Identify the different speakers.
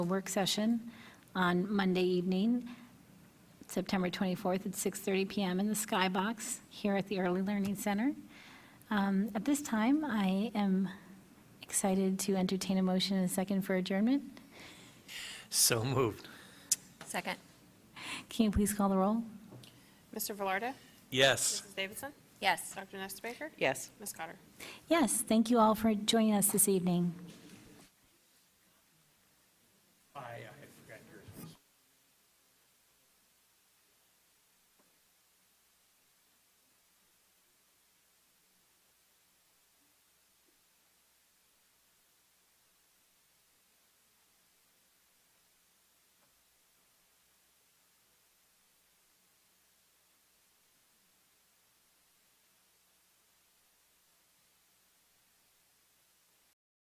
Speaker 1: a work session on Monday evening, September 24th at 6:30 PM in the Skybox here at the Early Learning Center. Um, At this time, I am excited to entertain a motion and a second for adjournment.
Speaker 2: So moved.
Speaker 3: Second.
Speaker 1: Can you please call the roll?
Speaker 4: Mr. Velarde?
Speaker 2: Yes.
Speaker 4: Mrs. Davidson?
Speaker 3: Yes.
Speaker 4: Dr. Nestor Baker?
Speaker 5: Yes.
Speaker 4: Ms. Cotter?
Speaker 1: Yes, thank you all for joining us this evening.